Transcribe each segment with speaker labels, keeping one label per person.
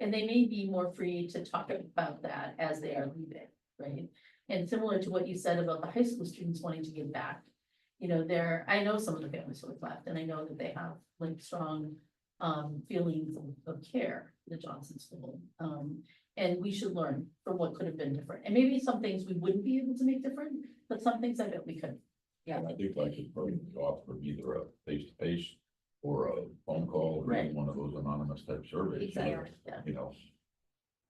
Speaker 1: and they may be more free to talk about that as they are leaving, right? And similar to what you said about the high school students wanting to give back. You know, there, I know some of the families who have left, and I know that they have like strong um feelings of- of care, for the Johnson School. Um, and we should learn from what could have been different, and maybe some things we wouldn't be able to make different, but some things I bet we could.
Speaker 2: And I think like his program could offer either a face-to-face or a phone call or
Speaker 1: Right.
Speaker 2: one of those anonymous type surveys. or,
Speaker 1: Yeah,
Speaker 2: You know,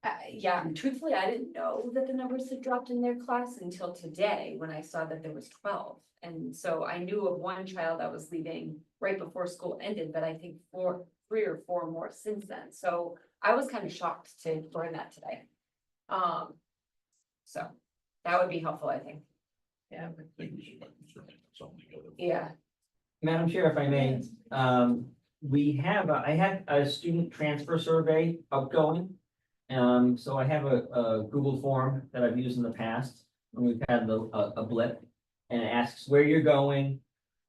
Speaker 3: Uh, yeah, and truthfully, I didn't know that the numbers had dropped in their class until today, when I saw that there was twelve. And so I knew of one child that was leaving right before school ended, but I think four, three or four more since then, so I was kind of shocked to learn that today. Um, so that would be helpful, I think,
Speaker 1: yeah.
Speaker 2: I think we should certainly put something together.
Speaker 3: yeah.
Speaker 4: Madam Chair, if I may, um, we have, a- I had a student transfer survey upgoing. Um, so I have a, a Google form that I've used in the past, when we've had the, a, a blip. And it asks where you're going,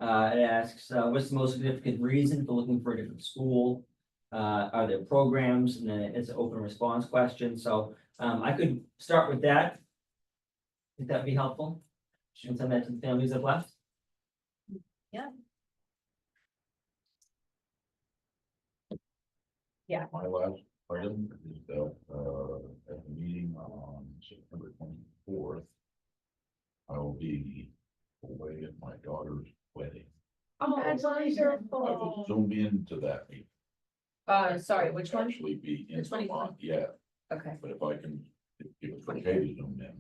Speaker 4: uh, it asks, uh, what's the most significant reason for looking for a different school? Uh, are there programs, and then it's an open response question, so, um, I could start with that. Would that be helpful? And send that to the families that left?
Speaker 2: My last item is that, uh, at the meeting on September twenty-fourth, I will be away at my daughter's wedding.
Speaker 5: Oh,
Speaker 1: That's
Speaker 2: I will zoom into that meeting.
Speaker 3: Oh. Uh, sorry, which one?
Speaker 2: Actually be in
Speaker 1: The 24th.
Speaker 2: Vermont, yeah,
Speaker 3: Okay,
Speaker 2: but if I can, if it's okay to zoom in,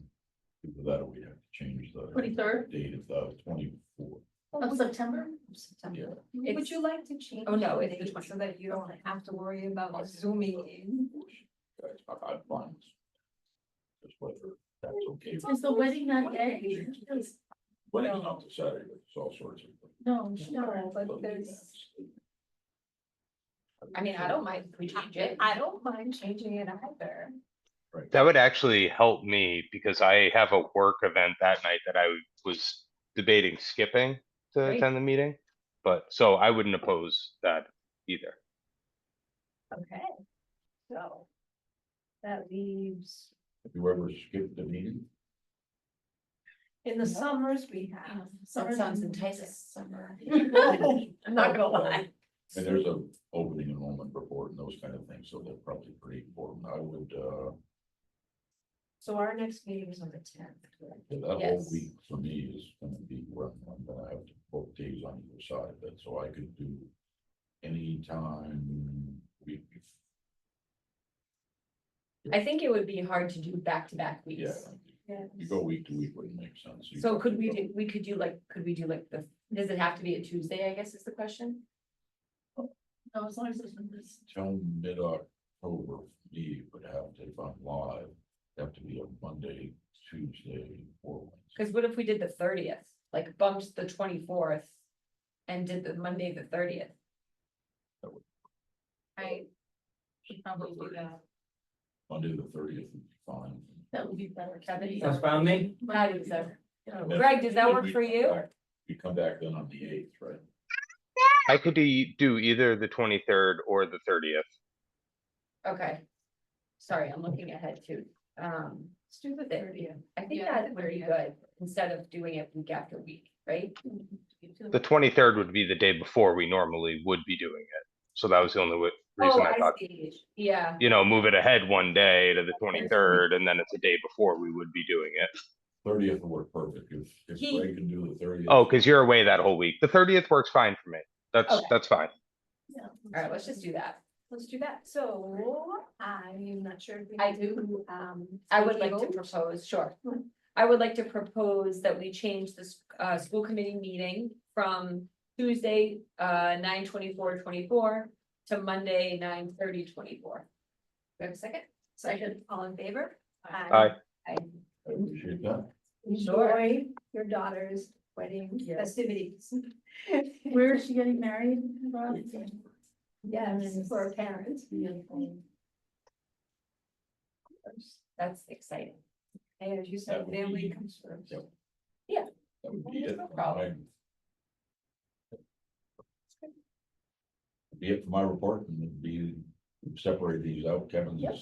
Speaker 2: because that we have to change the
Speaker 1: Twenty-third
Speaker 2: date of the twenty-fourth.
Speaker 1: of September?
Speaker 2: Yeah.
Speaker 3: September.
Speaker 5: Oh, Would you like to change?
Speaker 3: Oh, no,
Speaker 5: the
Speaker 3: it's the
Speaker 5: date
Speaker 3: 20.
Speaker 5: So that you don't have to worry about Oh, zooming in.
Speaker 2: I, I find. Just whether that's okay.
Speaker 1: Is the wedding that day?
Speaker 2: Wedding's not the Saturday, but it's all sorts of.
Speaker 1: No,
Speaker 5: No,
Speaker 1: no,
Speaker 5: but there's,
Speaker 3: I mean, I don't mind if we change it.
Speaker 5: I don't mind changing it either.
Speaker 6: That would actually help me because I have a work event that night that I was debating skipping to
Speaker 3: Great.
Speaker 6: attend the meeting. But so I wouldn't oppose that either.
Speaker 5: Okay. So. That leaves,
Speaker 2: Have you ever skipped the meeting?
Speaker 5: in the summers we have.
Speaker 1: Summer sounds enticing.
Speaker 3: Summer.
Speaker 5: I'm not gonna lie.
Speaker 2: And there's a opening enrollment report and those kind of things, so they're probably pretty important. I would, uh,
Speaker 5: So our next meeting is on the tenth.
Speaker 2: that whole
Speaker 3: Yes.
Speaker 2: week for me is gonna be rough. I'm gonna have to book days on either side of it, so I could do anytime we,
Speaker 3: I think it would be hard to do back-to-back
Speaker 2: yeah.
Speaker 3: weeks.
Speaker 2: You go week to week wouldn't make sense. You
Speaker 3: So
Speaker 2: have
Speaker 3: could
Speaker 2: to
Speaker 3: we
Speaker 2: go-
Speaker 3: do, we could do like, could we do like the, does it have to be a Tuesday, I guess is the question?
Speaker 1: no, as long as it's in this.
Speaker 2: Till mid-October, me would have to, if I'm live, have to be a Monday, Tuesday, or Wednesday.
Speaker 3: Cause what if we did the thirtieth, like bumped the twenty-fourth and did the Monday, the thirtieth?
Speaker 2: That would-
Speaker 3: I,
Speaker 1: Probably do that.
Speaker 2: Monday, the thirtieth would be fine.
Speaker 1: That would be better.
Speaker 3: That would be
Speaker 4: That's fine with me.
Speaker 1: Might be better.
Speaker 3: Greg, does that
Speaker 2: Then
Speaker 3: work
Speaker 2: we
Speaker 3: for
Speaker 2: come
Speaker 3: you?
Speaker 2: back- We come back then on the eighth, right?
Speaker 6: I could e- do either the twenty-third or the thirtieth.
Speaker 3: okay. Sorry, I'm looking ahead too. Um,
Speaker 5: Let's do the thirtieth.
Speaker 3: I think
Speaker 5: Yeah,
Speaker 3: that would be
Speaker 5: 30th.
Speaker 3: good instead of doing it week after week, right?
Speaker 6: The twenty-third would be the day before we normally would be doing it. So that was the only wa- reason
Speaker 3: Oh,
Speaker 6: I thought,
Speaker 3: see. Yeah,
Speaker 6: you know, move it ahead one day to the twenty-third and then it's a day before we would be doing it.
Speaker 2: Thirtieth would work perfect, if, if
Speaker 3: He-
Speaker 2: Greg can do the thirtieth.
Speaker 6: Oh, because you're away that whole week. The thirtieth works fine for me. That's,
Speaker 3: Okay.
Speaker 6: that's fine.
Speaker 3: all right, let's just do that.
Speaker 5: Let's do that. So I'm not sure. if we
Speaker 3: I
Speaker 5: need
Speaker 3: do.
Speaker 5: Um.
Speaker 3: I would like to
Speaker 5: vote.
Speaker 3: propose, sure.
Speaker 5: Hmm.
Speaker 3: I would like to propose that we change this uh school committee meeting from Tuesday uh nine twenty-four twenty-four to Monday nine thirty twenty-four. Do I have a second?
Speaker 1: Second.
Speaker 5: All in favor?
Speaker 6: Aye.
Speaker 3: I
Speaker 2: I appreciate that.
Speaker 3: Sure.
Speaker 5: Enjoy your daughter's wedding
Speaker 1: Yes.
Speaker 5: festivities.
Speaker 1: Where is she getting married? Rob?
Speaker 5: Yes, for parents.
Speaker 3: that's exciting.
Speaker 5: And as you
Speaker 2: That
Speaker 5: said,
Speaker 2: would
Speaker 5: family
Speaker 2: be-
Speaker 5: comes first.
Speaker 2: Yep.
Speaker 3: Yeah.
Speaker 2: That would be it.
Speaker 3: No problem.
Speaker 2: Be it for my report, and it'd be, separate these out, Kevin's
Speaker 3: Yep.